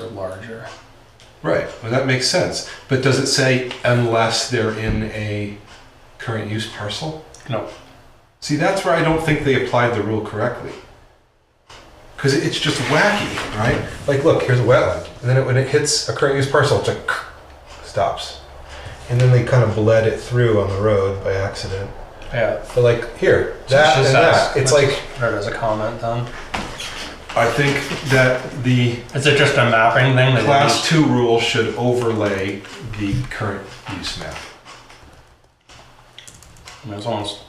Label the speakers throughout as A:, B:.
A: it larger.
B: Right, well, that makes sense. But does it say unless they're in a current use parcel?
A: No.
B: See, that's where I don't think they applied the rule correctly. Because it's just wacky, right? Like, look, here's a wetland, and then it, when it hits a current use parcel, it's like stops, and then they kind of bled it through on the road by accident.
A: Yeah.
B: But like here,
A: So
B: that
A: it's just
B: and
A: us.
B: that,
A: Let's
B: it's like
A: just Put it as a comment then.
B: I think that the
A: Is it just a mapping thing? that
B: Class two rule should overlay the current use map.
A: I mean, It's almost,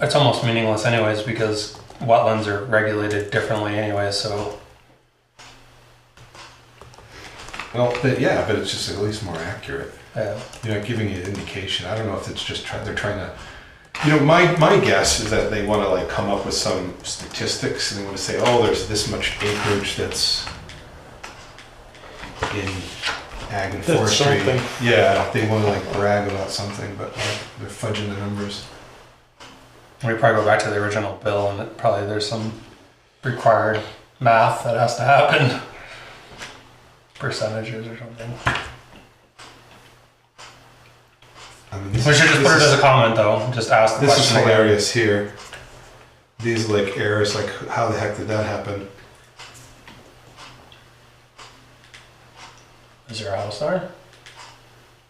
A: it's almost meaningless anyways because wetlands are regulated differently anyway, so
B: Well, but yeah, but it's just at least more accurate.
A: yeah.
B: You know, giving you an indication. I don't know if it's just try, they're trying to. You know, my my guess is that they want to like come up with some statistics and they want to say, oh, there's this much acreage that's in ag and
C: That's
B: forestry.
C: something.
B: Yeah, they want to like brag about something, but like, they're fudging the numbers.
A: We probably go back to the original bill and it probably there's some required math that has to happen. Percentages or something.
B: I mean,
A: We
B: this
A: should just
B: is-
A: put
B: this
A: it
B: is-
A: as a comment though, just ask the
B: This is
A: question. again.
B: hilarious here. These like errors, like how the heck did that happen?
A: Is there a house there?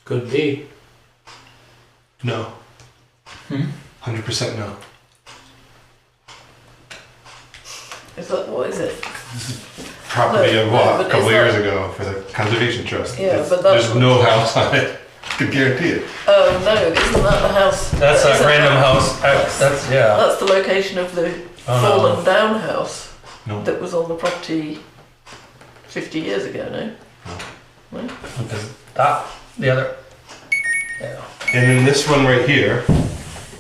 C: Could be.
B: No.
D: Hmm?
B: Hundred percent no.
D: It's like, what is it?
B: Property I
D: Look,
B: bought
D: but
B: a couple
D: it's
B: years
D: not-
B: ago for the conservation trust.
D: Yeah,
B: It's-
D: but that's-
B: there's no house on it. I can guarantee it.
D: Oh no, isn't that the house?
A: That's
D: that
A: a
D: isn't
A: random
D: that-
A: house. I- That's, yeah.
D: That's the location of the
A: Oh,
D: fallen
A: no.
D: down house
B: No.
D: that was on the property 50 years ago, no?
A: Because That, the other, yeah.
B: And then this one right here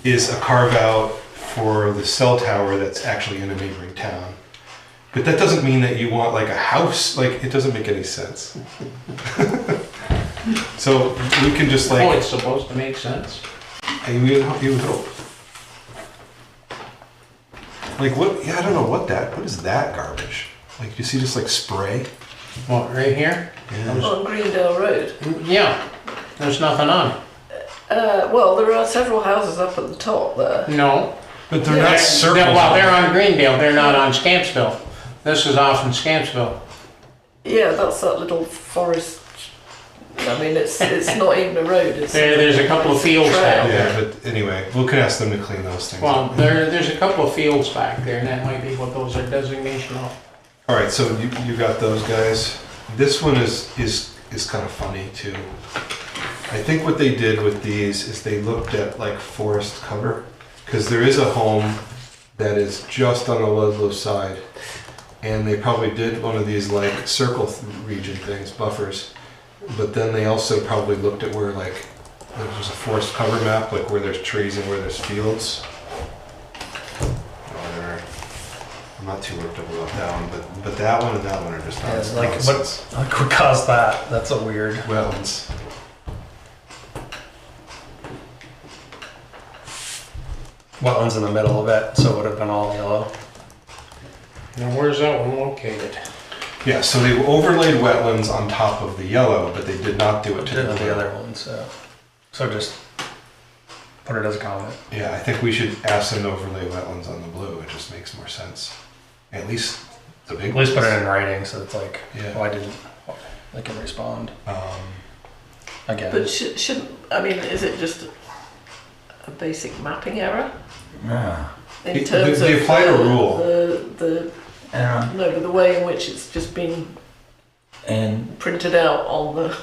B: is a carve out for the cell tower that's actually in a neighboring town. But that doesn't mean that you want like a house. Like it doesn't make any sense. so we can just like
C: oh, it's supposed to make sense.
B: I mean, you would- you would hope. Like what? Yeah, I don't know what that. What is that garbage? Like you see, just like spray.
C: What, right here?
B: Yeah.
D: On Greendale Road.
C: Yeah, there's nothing on it.
D: Uh, well, there are several houses up at the top there.
C: No.
B: But they're not circles.
C: They're- Well, they're on Greendale, they're not on Scampsville. This is off in Scampsville.
D: Yeah, that's that little forest. I mean, it's it's not even a road. It's
C: There, there's a couple of fields back.
B: yeah, but anyway, we can ask them to clean those things.
C: Well,
B: up.
C: there, there's a couple of fields back there, and that might be what those are designation of.
B: All right, so you, you got those guys. This one is is is kind of funny too. I think what they did with these is they looked at like forest cover because there is a home that is just on the Ludlow side, and they probably did one of these like circle th- region things buffers, but then they also probably looked at where like there's just a forest cover map like where there's trees and where there's fields. Whatever. I'm not too worked up about that one, but but that one and that one are just
A: Yeah,
B: not
A: like, what, like what caused that? That's a weird.
B: wetlands.
A: Wetlands in the middle of it, so it would have been all yellow.
C: Now, where's that one located?
B: Yeah, so they overlaid wetlands on top of the yellow, but they did not do it to
A: Did
B: the,
A: the other ones, so. So just put it as a comment.
B: Yeah, I think we should ask them to overlay wetlands on the blue. It just makes more sense. At least the big.
A: At least put
B: ones.
A: it in writing, so it's like,
B: Yeah.
A: why didn't, they can respond
B: Um,
A: again.
D: But sh- shouldn't I mean? Is it just a- a basic mapping error
E: Yeah.
D: in
B: It-
D: terms
B: they- they
D: of
B: applied a
D: the,
B: rule.
D: The, the
E: And, uh,
D: no, but the way in which it's just been
E: and
D: printed out on the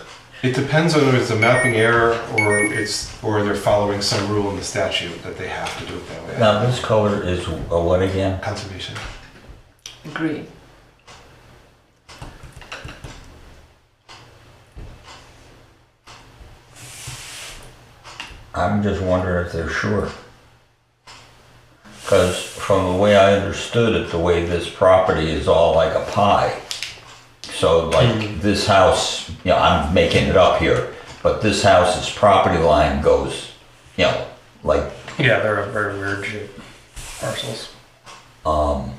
B: it depends on whether it's a mapping error or it's or they're following some rule in the statute that they have to do it that way.
E: now this color is a what again?
B: Conservation.
D: green.
E: I'm just wondering if they're sure. Because from the way I understood it, the way this property is all like a pie. So like this house, you know, I'm making it up here, but this house's property line goes, you know, like
A: Yeah, they're very weird shaped parcels.
E: Um,